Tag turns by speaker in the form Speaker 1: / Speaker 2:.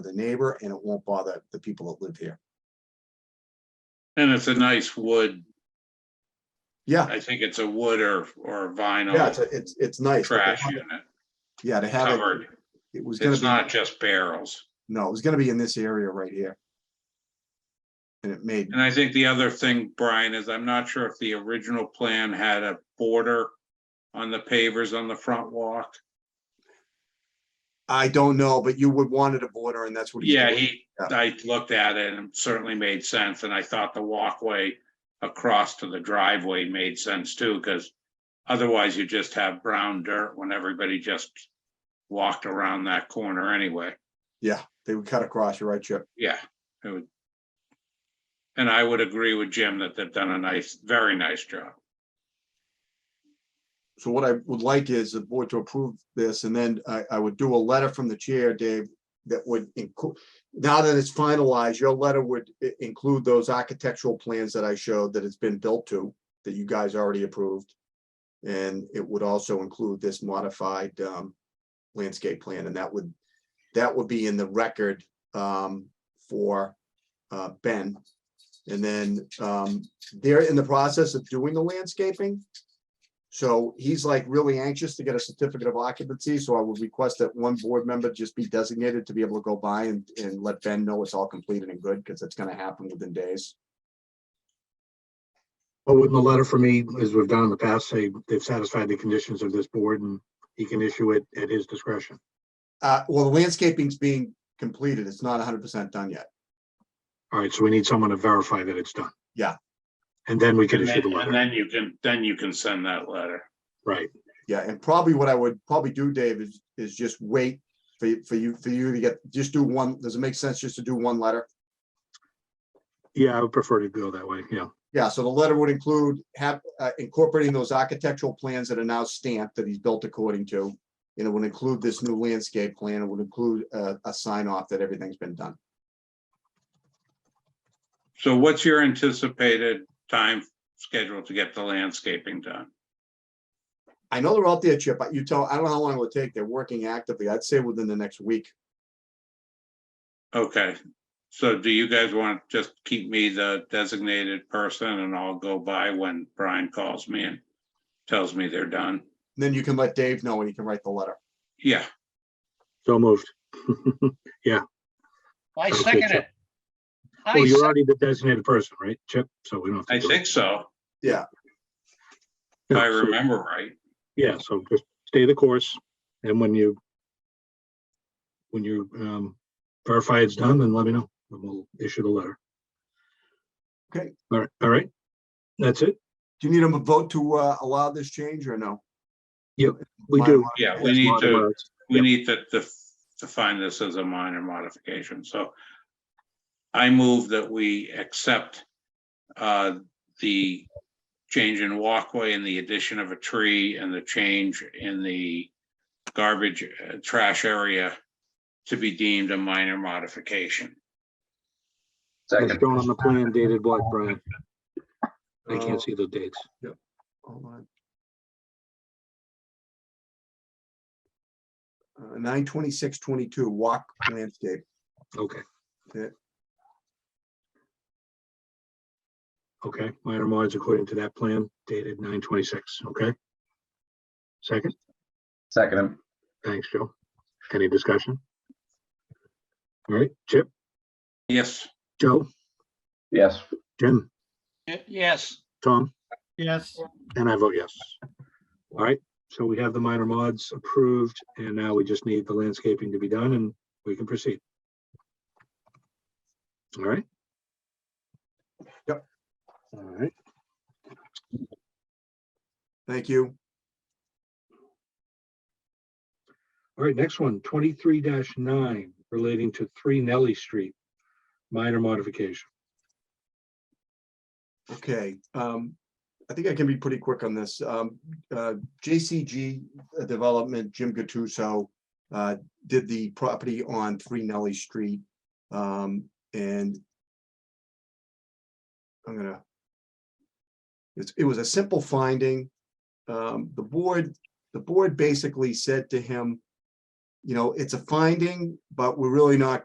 Speaker 1: the neighbor and it won't bother the people that live here.
Speaker 2: And it's a nice wood.
Speaker 1: Yeah,
Speaker 2: I think it's a wood or, or
Speaker 1: yeah, it's,
Speaker 2: vinyl
Speaker 1: a- it's, it's nice. but to
Speaker 2: trash
Speaker 1: have it-
Speaker 2: unit
Speaker 1: Yeah, to have it,
Speaker 2: covered.
Speaker 1: it was gonna
Speaker 2: It's
Speaker 1: be,
Speaker 2: not just barrels.
Speaker 1: no, it was gonna be in this area right here. And it made,
Speaker 2: And I think the other thing, Brian, is I'm not sure if the original plan had a border on the pavers on the front walk.
Speaker 1: I don't know, but you would wanted a border and that's what. he's
Speaker 2: Yeah,
Speaker 1: doing.
Speaker 2: he, I looked at it and it certainly made sense, and I thought the walkway across to the driveway made sense too, because otherwise you just have brown dirt when everybody just walked around that corner anyway.
Speaker 1: Yeah, they would cut across, you're right, Chip.
Speaker 2: Yeah, it would. And I would agree with Jim that they've done a nice, very nice job.
Speaker 1: So what I would like is the board to approve this, and then I, I would do a letter from the chair, Dave, that would include, now that it's finalized, your letter would i- include those architectural plans that I showed that it's been built to, that you guys already approved. And it would also include this modified, um, landscape plan, and that would, that would be in the record, um, for, uh, Ben. And then, um, they're in the process of doing the landscaping. So he's like really anxious to get a certificate of occupancy, so I would request that one board member just be designated to be able to go by and, and let Ben know it's all completed and good, because it's gonna happen within days.
Speaker 3: But wouldn't the letter from me, as we've done in the past, say they've satisfied the conditions of this board and he can issue it at his discretion?
Speaker 1: Uh, well, the landscaping's being completed, it's not hundred percent done yet.
Speaker 3: All right, so we need someone to verify that it's done.
Speaker 1: Yeah.
Speaker 3: And then we can
Speaker 2: And
Speaker 3: issue the
Speaker 2: then, and
Speaker 3: letter,
Speaker 2: then you can, then you can send that letter.
Speaker 3: right?
Speaker 1: Yeah, and probably what I would probably do, Dave, is, is just wait for, you- for you, for you to get, just do one, does it make sense just to do one letter?
Speaker 3: Yeah, I would prefer to go that way, yeah.
Speaker 1: Yeah, so the letter would include have uh, incorporating those architectural plans that are now stamped that he's built according to. And it would include this new landscape plan. It would include a, a sign off that everything's been done.
Speaker 2: So what's your anticipated time schedule to get the landscaping done?
Speaker 1: I know they're out there, Chip, but you tell, I don't know how long it will take. They're working actively. I'd say within the next week.
Speaker 2: Okay, so do you guys want to just keep me the designated person and I'll go by when Brian calls me and tells me they're done?
Speaker 1: Then you can let Dave know and he can write the letter.
Speaker 2: Yeah,
Speaker 3: So moved.
Speaker 4: I
Speaker 3: Okay,
Speaker 4: second
Speaker 3: Chip.
Speaker 4: it. I
Speaker 3: Well, you're
Speaker 4: se-
Speaker 3: already the designated person, right, Chip? So we don't have to.
Speaker 2: I
Speaker 3: do it.
Speaker 2: think so, if
Speaker 3: Yeah,
Speaker 2: I
Speaker 3: so-
Speaker 2: remember right.
Speaker 3: Yeah, so just stay the course, and when you when you um verify it's done, then let me know, and we'll issue the letter.
Speaker 1: Okay.
Speaker 3: All right, all right. That's it.
Speaker 1: Do you need him a vote to uh, allow this change or no?
Speaker 3: We do.
Speaker 2: Yeah, we
Speaker 3: That's
Speaker 2: need
Speaker 3: my
Speaker 2: to,
Speaker 3: words.
Speaker 2: we need to, to, to find this as a minor modification, so. I move that we accept, uh, the change in walkway and the addition of a tree and the change in the garbage, uh, trash area to be deemed a minor modification.
Speaker 3: It's shown on the plan dated what, Brian? I
Speaker 1: Uh,
Speaker 3: can't see the dates.
Speaker 1: Oh, Hold on. Uh, nine twenty-six twenty-two, walk landscape.
Speaker 3: Okay.
Speaker 1: Yeah.
Speaker 3: Okay, minor mods according to that plan dated nine twenty-six, okay? Second,
Speaker 5: Second him.
Speaker 3: thanks, Joe. Any discussion? All right, Chip,
Speaker 2: Yes,
Speaker 3: Joe,
Speaker 5: Yes.
Speaker 3: Jim,
Speaker 4: y- Yes,
Speaker 3: Tom,
Speaker 6: Yes,
Speaker 3: and I vote yes. All right, so we have the minor mods approved, and now we just need the landscaping to be done, and we can proceed. All right?
Speaker 1: Yep.
Speaker 3: All right,
Speaker 1: Thank you.
Speaker 3: all right, next one, twenty-three nine, relating to three Nelly Street, minor modification.
Speaker 1: Okay, um, I think I can be pretty quick on this. Um, uh, JCG uh, Development, Jim Gattuso, uh, did the property on Three Nelly Street, um, and I'm gonna, it's, it was a simple finding. Um, the board, the board basically said to him, you know, it's a finding, but we're really not